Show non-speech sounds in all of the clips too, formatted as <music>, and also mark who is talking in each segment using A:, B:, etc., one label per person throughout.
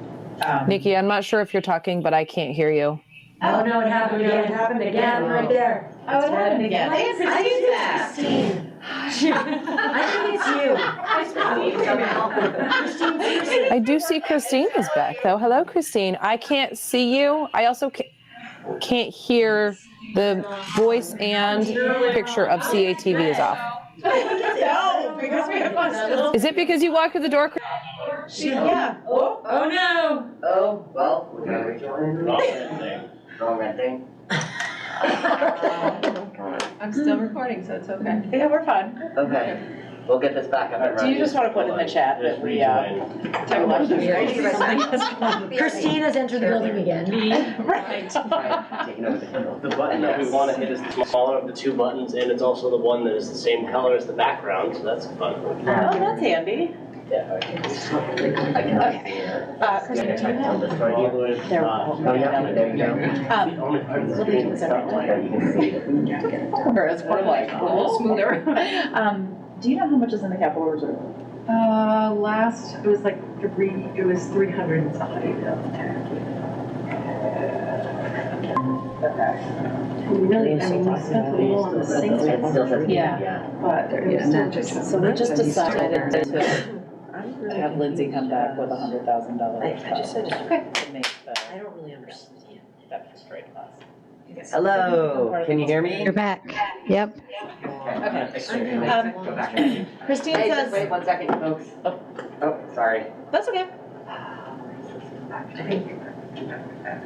A: Um,
B: Nikki, I'm not sure if you're talking, but I can't hear you.
C: Oh, no, it happened again. It happened again, right there.
A: Oh, it happened again. They didn't
C: I
A: perceive
C: think
A: that.
C: it's Christine. I think it's you. Christine, seriously.
B: I do see Christine is back though. Hello, Christine. I can't see you. I also ca- can't hear the voice and picture of CATV is off.
A: No, because Oh, we have one still.
B: Is it because you walked through the door? Chris-
A: She, yeah. Oh, oh no.
D: Oh, well, we gotta rejoin. Wrong thing. Wrong thing.
E: I'm still recording, so it's okay.
A: Yeah, we're fine.
D: Okay, we'll get this back up and
A: Do
D: running.
A: you
D: <laughs>
A: just want to put in the chat that we, uh, took a lot of <laughs> the-
C: Christine has entered the building again.
A: Right.
D: Right, Taking over the handle.
F: The button that we want to hit is the smaller of the two buttons, and it's also the one that is the same color as the background, so that's fun.
A: Oh, that's handy.
D: Yeah, okay. I cannot see her.
A: Uh,
D: Yeah, I tried to tell this
F: Right,
D: one.
F: either way,
A: There.
F: uh,
D: Oh, yeah, there you go.
A: Um,
F: the only part of the
A: we'll be doing
F: screen that's
A: something
F: not
A: like
F: like
D: There, you can see it.
A: Or it's more like,
E: A little smoother.
A: um, do you know how much is in the capital reserve?
E: Uh, last, it was like three, it was three hundred and something. We really, I mean, we spent a little on the sinks,
D: It still says.
E: Yeah. but there was
G: Yeah,
E: still
G: not just-
E: so they just decided that.
A: to have Lindsay come back with a hundred thousand dollar. I just said. To make the,
C: I don't really understand.
A: that straight class.
H: Oh,
D: Hello, can you hear me?
G: You're back. Yep.
A: Um,
D: Go back in.
A: Christine
D: Hey, just
A: says,
D: wait one second, folks.
A: Oh.
D: Oh, sorry.
A: that's okay,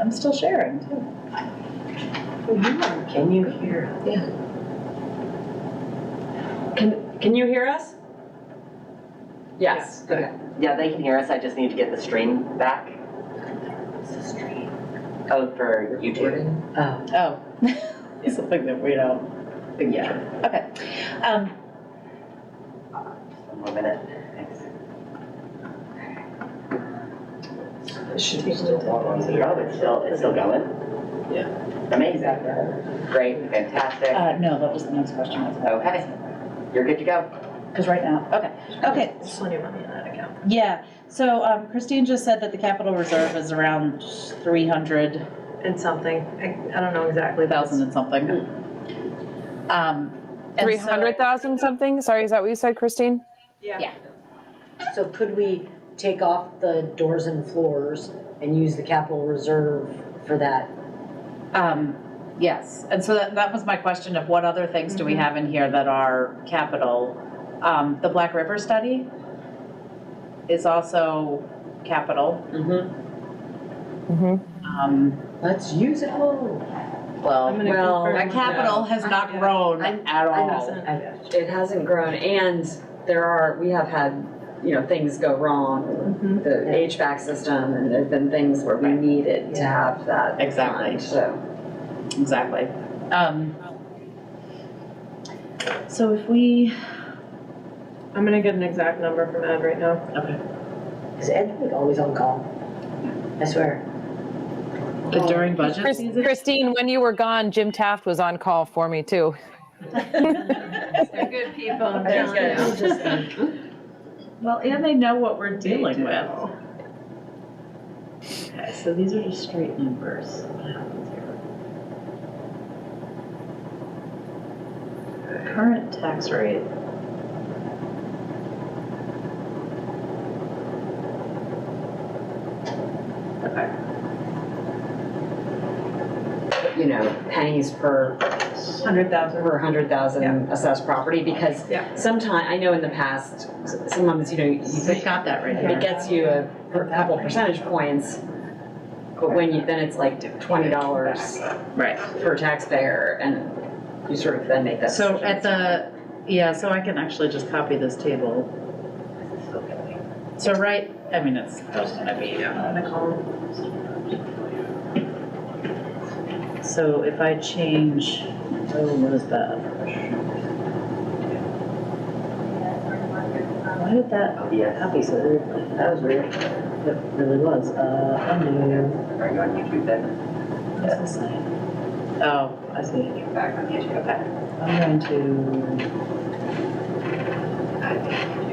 A: I'm still sharing too.
D: Can you hear? us?
C: Can, can you hear us?
A: Yes.
D: Yeah, they can hear us, I just need to get the stream back. Oh, for YouTube.
C: Oh.
A: Oh, something that we don't, yeah, okay. Um,
D: One more minute. Thanks.
C: Should be
D: Oh, it's still, it's still going? Yeah. Amazing. Great, fantastic.
A: uh, no, that was the next question I was having.
D: Okay, you're good to go.
A: Because right now, okay, okay,
C: plenty of money in that account.
A: yeah. So um, Christine just said that the capital reserve is around three hundred
C: And something, I, I don't know exactly. but
A: thousand and something. Um, and so-
B: 300,000 something? Sorry, is that what you said, Christine?
C: it's- So could we take off the doors and floors and use the capital reserve for that?
A: Um, yes, and so that, that was my question of what other things do we have in here that are capital? Um, the Black River study is also capital.
C: Mm-hmm.
B: Mm-hmm.
A: Um,
C: Let's use it all.
A: well,
E: gonna
H: Well,
E: confirm
A: that capital has not grown
H: I'm-
A: at
H: I
A: all.
H: know, It hasn't grown, and there are, we have had, you know, things go wrong.
E: Mhm.
H: with The HVAC system, and there've been things where we
A: Mm-hmm. Right.
H: needed to have that.
A: Exactly.
H: fund, So.
A: Exactly. Um, so if we,
E: I'm gonna get an exact number from Ed right now.
C: Is Ed like always on call? I swear.
A: but during budget
B: Chris-
A: season,
B: Christine, when you were gone, Jim Taft was on call for me too.
E: They're good people. I'm
A: They're
E: telling you.
A: good. Well, and they know what we're dealing with. Okay, so these are just straight numbers. Current tax rate. Okay.
H: you know, pennies per. Hundred thousand. Per hundred thousand assessed property, because
E: Yeah.
H: sometime, I know in the past, s- sometimes, you know, you
A: We've
H: think
A: got that right
H: it
A: here.
H: gets you a per- couple percentage points, but when you, then it's like twenty dollars
A: Right.
H: per taxpayer, and you sort of then make that.
A: So
H: decision.
A: at the, yeah, so I can actually just copy this table. So right, I mean, it's there's gonna be um, on the column. So if I change, oh, what is that? Why did that
D: Oh, yes.
A: copy so weirdly? That was weird. It really was. Uh, I'm new.
D: Are you on YouTube then?
A: What's this sign? Oh, I see.
D: Back on YouTube.
A: I'm going to.